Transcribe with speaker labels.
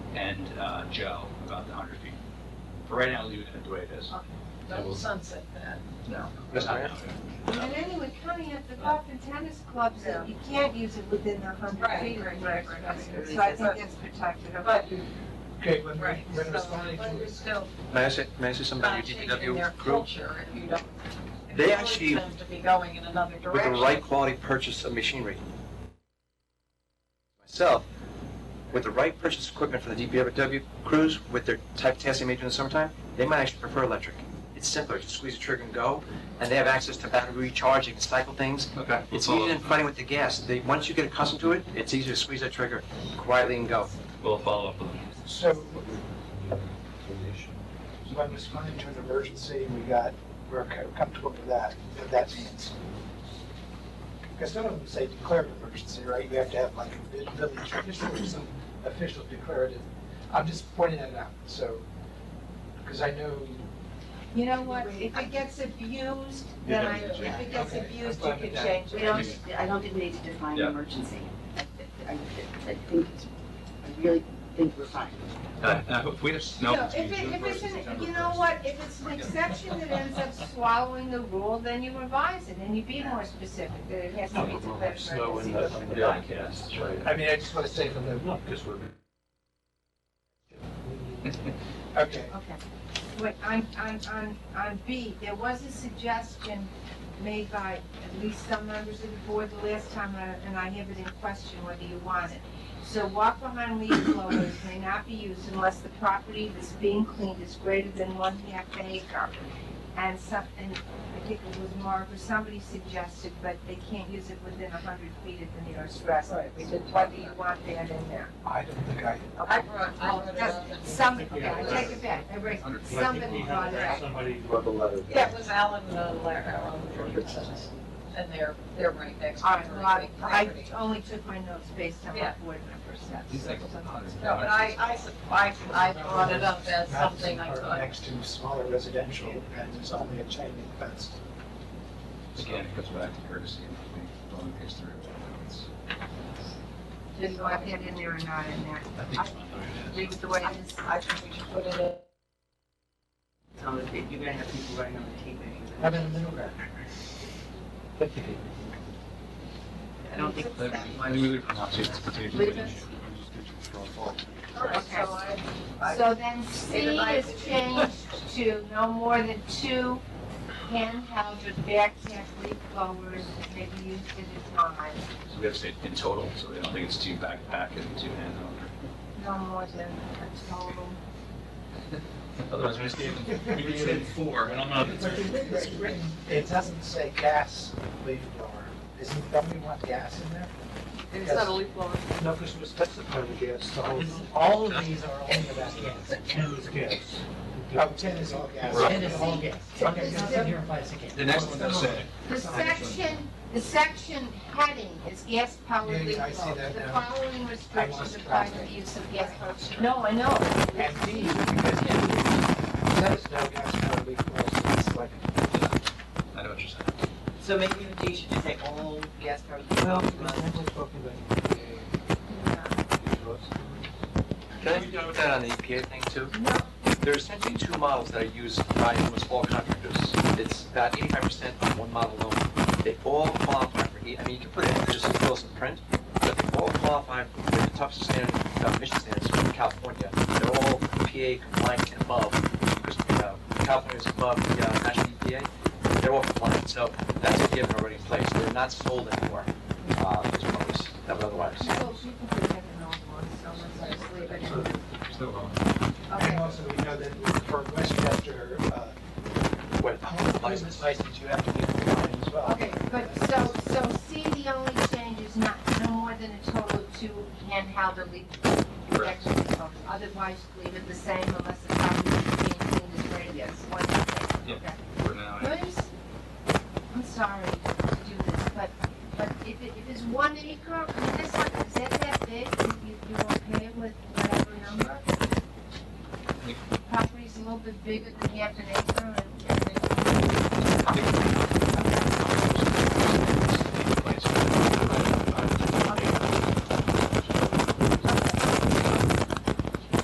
Speaker 1: and uh, Joe about the 100 feet. For right now, leave it the way it is.
Speaker 2: Don't sunset that.
Speaker 1: No.
Speaker 3: Mr. Mayor?
Speaker 4: And anyway, coming at the golf and tennis clubs, that you can't use it within the hundred
Speaker 2: Right,
Speaker 4: feet.
Speaker 2: right, right, right.
Speaker 4: So I think that's protected.
Speaker 2: But,
Speaker 5: Okay, when,
Speaker 2: right,
Speaker 5: we-
Speaker 2: so,
Speaker 5: when responding
Speaker 2: but you're
Speaker 5: to,
Speaker 2: still
Speaker 3: May I say, may I say something
Speaker 2: not
Speaker 3: about your
Speaker 2: changing Uh, their
Speaker 3: DPW group?
Speaker 2: culture if you don't. if
Speaker 3: They
Speaker 2: you want
Speaker 3: actually-
Speaker 2: them To be going in another
Speaker 3: With the
Speaker 2: direction.
Speaker 3: right quality purchase of machinery. Myself, with the right purchase equipment for the DPW crews, with their type testing major in the summertime, they might actually prefer electric. It's simpler, just squeeze the trigger and go, and they have access to battery recharge, they can cycle things.
Speaker 1: Okay.
Speaker 3: It's easier than fighting with the gas. They, once you get accustomed to it, it's easier to squeeze that trigger quietly and go.
Speaker 1: We'll follow up with them.
Speaker 5: so when responding to an emergency, we got, we're co- comfortable with that, what that means. Because some of them say declared emergency, right? You have to have like a vi- village official or some official declarative. I'm just pointing that out, so, because I know,
Speaker 4: You know what, if it gets abused, then I, if it gets
Speaker 5: Okay.
Speaker 4: abused, you
Speaker 5: I'm
Speaker 4: can
Speaker 5: fine with
Speaker 4: change
Speaker 6: We
Speaker 4: it.
Speaker 6: don't, I don't think we need to define
Speaker 1: Yeah.
Speaker 6: emergency. I- I I think, it's- I really think we're fine.
Speaker 1: Uh, I hope we just, no.
Speaker 4: No, if it, if it's, an- you know what, if it's an exception that ends up swallowing the rule, then you revise it and you be more specific, that it has to be declared emergency.
Speaker 1: Yeah, yes.
Speaker 5: I mean, I just want to say from the,
Speaker 1: Because we're.
Speaker 5: okay.
Speaker 4: Okay. Wait, on, on, on, on B, there was a suggestion made by at least some members of the board the last time, uh, and I have it in question whether you want it. So walk behind leaf blowers may not be used unless the property that's being cleaned is greater than one half an acre. And some, and I think it was Mark or somebody suggested, but they can't use it within a hundred feet of the nearest restaurant.
Speaker 2: Right, we did talk
Speaker 4: Whether you
Speaker 2: about
Speaker 4: want that in there.
Speaker 5: I don't think I,
Speaker 2: I brought, I brought it
Speaker 4: Yes,
Speaker 2: up.
Speaker 4: Somebody, yeah, I take it back, I raise, somebody brought it up.
Speaker 7: Somebody wrote a letter.
Speaker 2: That was Alan Valero and they're, they're right next to
Speaker 4: All right,
Speaker 2: her
Speaker 4: well, I- I
Speaker 2: property.
Speaker 4: only took my notes based on
Speaker 2: Yeah.
Speaker 4: what board members said.
Speaker 1: He's like,
Speaker 2: No, but I, I, sup- I, I brought it up as
Speaker 5: That's
Speaker 2: something I
Speaker 5: part
Speaker 2: thought,
Speaker 5: Next to smaller residential, and there's only a chain link fence.
Speaker 1: Again, it goes back to courtesy. and I think it's through. It's-
Speaker 4: Didn't want that in there or not in there.
Speaker 1: I think it's fine the way it
Speaker 4: Leave it the way
Speaker 2: I
Speaker 4: it is.
Speaker 2: I think we should put it in.
Speaker 6: So if you're gonna have people running on the
Speaker 5: How
Speaker 6: TV.
Speaker 5: about a middle ground?
Speaker 6: I don't think.
Speaker 1: is. Let me leave it for now, see if it's potentially
Speaker 6: Leave
Speaker 1: an
Speaker 6: it.
Speaker 1: issue.
Speaker 2: All right, so I, I-
Speaker 4: So then C is changed to no more than two handheld or backpack leaf blowers that may be used at a time.
Speaker 1: So we have to say in total, so they don't think it's two backpack and two handheld.
Speaker 4: No more than a total.
Speaker 1: Otherwise, we just gave, we just gave four, and I'm not.
Speaker 5: It doesn't say gas leaf blower. Isn't, don't we want gas in there?
Speaker 2: it's not a leaf blower.
Speaker 5: No, because we're specifying the gas, so all of these are only about gas.
Speaker 7: Ten was gas.
Speaker 5: Oh, ten is all gas.
Speaker 1: Right.
Speaker 7: Ten is all gas.
Speaker 5: Okay,
Speaker 7: It's not here implies a gas.
Speaker 1: The next one they'll say.
Speaker 4: The section, the section heading is gas
Speaker 5: Yeah,
Speaker 4: powered
Speaker 5: yeah,
Speaker 4: leaf
Speaker 5: I see
Speaker 4: blowers.
Speaker 5: that
Speaker 4: The
Speaker 5: now.
Speaker 4: following restrictions apply to the use of gas powered. No, I know.
Speaker 5: And D, because there is no gas powered leaf blower, so it's like,
Speaker 1: I know what you're saying.
Speaker 6: So maybe the D should just say
Speaker 2: "Oh,
Speaker 6: all gas powered.
Speaker 5: well, we're talking about.
Speaker 3: Can I be done with that on the EPA thing too? There are essentially two models that are used by almost all contractors. It's about eighty-five percent on one model alone. They all qualify for, E- I mean, you can put it in just as close and print, but they all qualify for the toughest standard, uh, emission standards from California. They're all EPA compliant and above, because, uh, California's above the, uh, national EPA. They're all compliant, so that's a given already in place. They're not sold anymore, uh, as well as, that would otherwise.
Speaker 4: Well, she can put that in all one, so let's just leave it in.
Speaker 5: And
Speaker 4: Okay.
Speaker 5: also, we know that for Westchester, uh,
Speaker 3: Wait,
Speaker 5: home business license, you have to be compliant as well.
Speaker 4: Okay, but so, so C, the only change is not, no more than a total of two handheld or leaf protection phones. Otherwise, leave it the same unless the property is being cleaned as rated as one.
Speaker 1: Yeah.
Speaker 4: Okay.
Speaker 1: For now, yeah.
Speaker 4: Williams, I'm sorry to do this, but, but if it, if it's one acre, I mean, that's not, is that that big? You, you okay with whatever number? Property's a little bit bigger than half an acre and.
Speaker 1: I think